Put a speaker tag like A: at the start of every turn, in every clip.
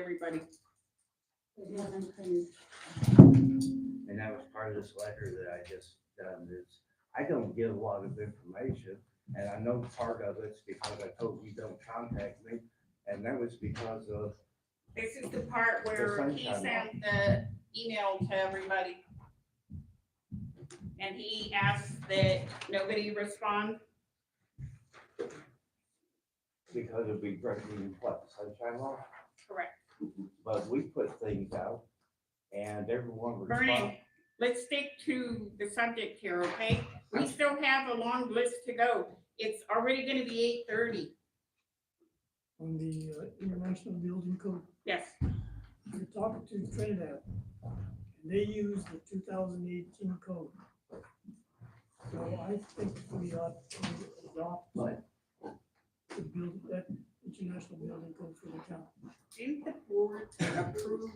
A: everybody.
B: It wasn't clean.
C: And that was part of this letter that I just done is, I don't give a lot of information. And I know part of it's because I told you don't contact me. And that was because of,
A: This is the part where he
C: sunshine law.
A: sent the email to everybody. And he asked that nobody respond.
C: because of we breaking what, sunshine law?
A: Correct.
C: But we put things out and everyone
A: Vernon,
C: responded.
A: let's stick to the subject here, okay? We still have a long list to go. It's already gonna be eight thirty.
D: on the uh, International Building Code.
A: Yes,
D: You're talking to Trinidad, and they use the two thousand eighteen code. So I think we ought to adopt
C: Right.
D: the build, that International Building Code for the town.
A: didn't the board approve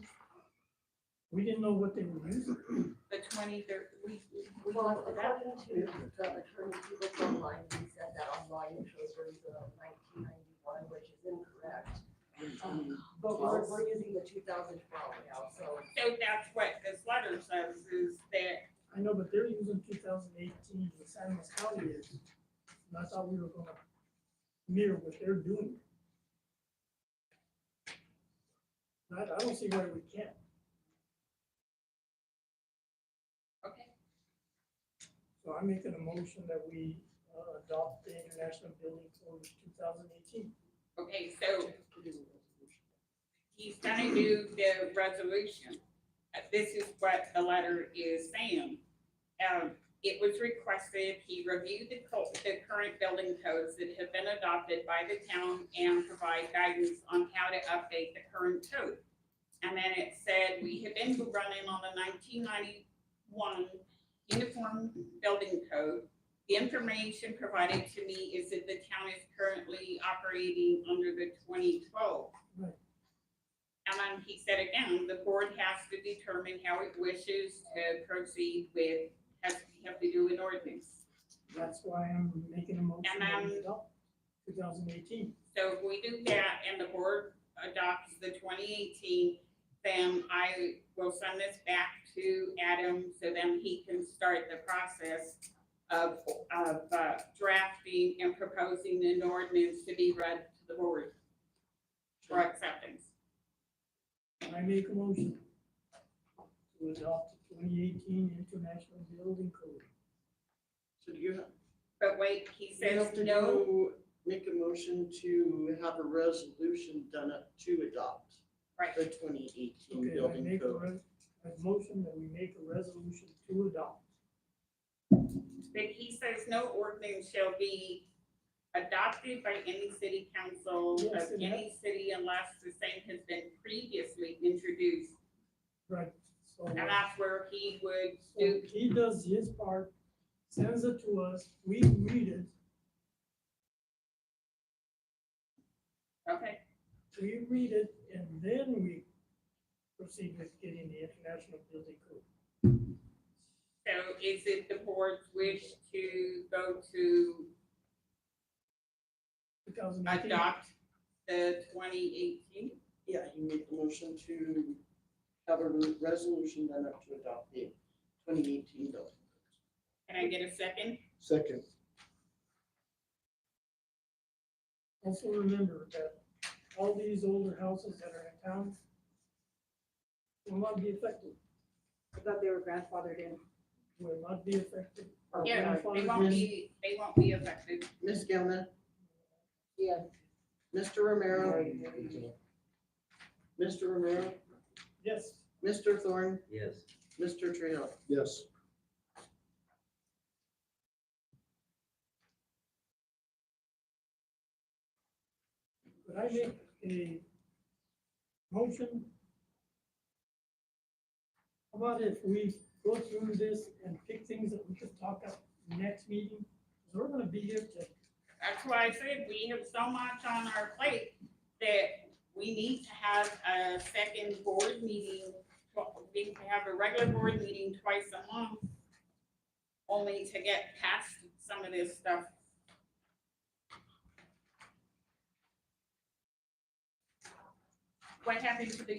D: We didn't know what they were using.
A: the twenty third, we, we,
B: Well,
A: that-
B: according to the attorney who looked online, he said that online it shows where you go nineteen ninety-one, which is incorrect. Um, But we're, we're using the two thousand twelve now, so
A: so that's what this letter says, is that,
D: I know, but they're using two thousand eighteen, the San Luis County is. And I thought we were gonna mirror what they're doing. And I, I don't see why we can't.
A: okay,
D: So I'm making a motion that we uh, adopt the International Building Code two thousand eighteen.
A: okay, so he's gonna do the resolution. Uh, This is what the letter is saying. Um, it was requested, he reviewed the co- the current building codes that have been adopted by the town and provide guidance on how to update the current code. And then it said, we have been running on the nineteen ninety-one uniform building code. The information provided to me is that the town is currently operating under the twenty twelve. And then he said again, the board has to determine how it wishes to proceed with, has, have to do an ordinance.
D: That's why I'm making a motion that we
A: And,
D: adopt two thousand eighteen.
A: So if we do that and the board adopts the twenty eighteen, then I will send this back to Adam so then he can start the process of, of uh, drafting and proposing an ordinance to be read to the board for acceptance.
D: And I make a motion to adopt the twenty eighteen International Building Code.
E: So do you have,
A: But wait, he
E: you
A: says
E: have to
A: no,
E: go make a motion to have a resolution done up to adopt
A: right,
E: the twenty eighteen
D: Okay, I
E: building
D: make a
E: code.
D: res, a motion that we make a resolution to adopt.
A: But he says no ordinance shall be adopted by any city council of
D: Yes, and
A: any city unless the same has been previously introduced.
D: Right. So,
A: And that's where he would
D: so
A: do,
D: he does his part, sends it to us, we read it,
A: okay,
D: we read it, and then we proceed with getting the International Building Code.
A: so is it the board's wish to go to
D: 2018.
A: adopt the twenty eighteen?
E: Yeah, you make the motion to have a re- resolution done up to adopt the twenty eighteen building.
A: Can I get a second?
E: Second.
D: Also remember that all these older houses that are in town will not be affected,
F: I thought they were grandfathered in.
D: will not be affected. Our
A: Yeah, they
D: grandfather
A: won't
D: is-
A: be, they won't be affected.
E: Ms. Gilman,
B: yeah.
E: Mr. Romero, Mr. Romero,
D: Yes,
E: Mr. Thorne,
C: Yes,
E: Mr. Trejo.
G: Yes,
D: could I make a motion? How about if we go through this and pick things that we could talk about next meeting? Because we're gonna be here till
A: That's why I said we have so much on our plate that we need to have a second board meeting. well, We need to have a regular board meeting twice a month, only to get past some of this stuff. what happened to the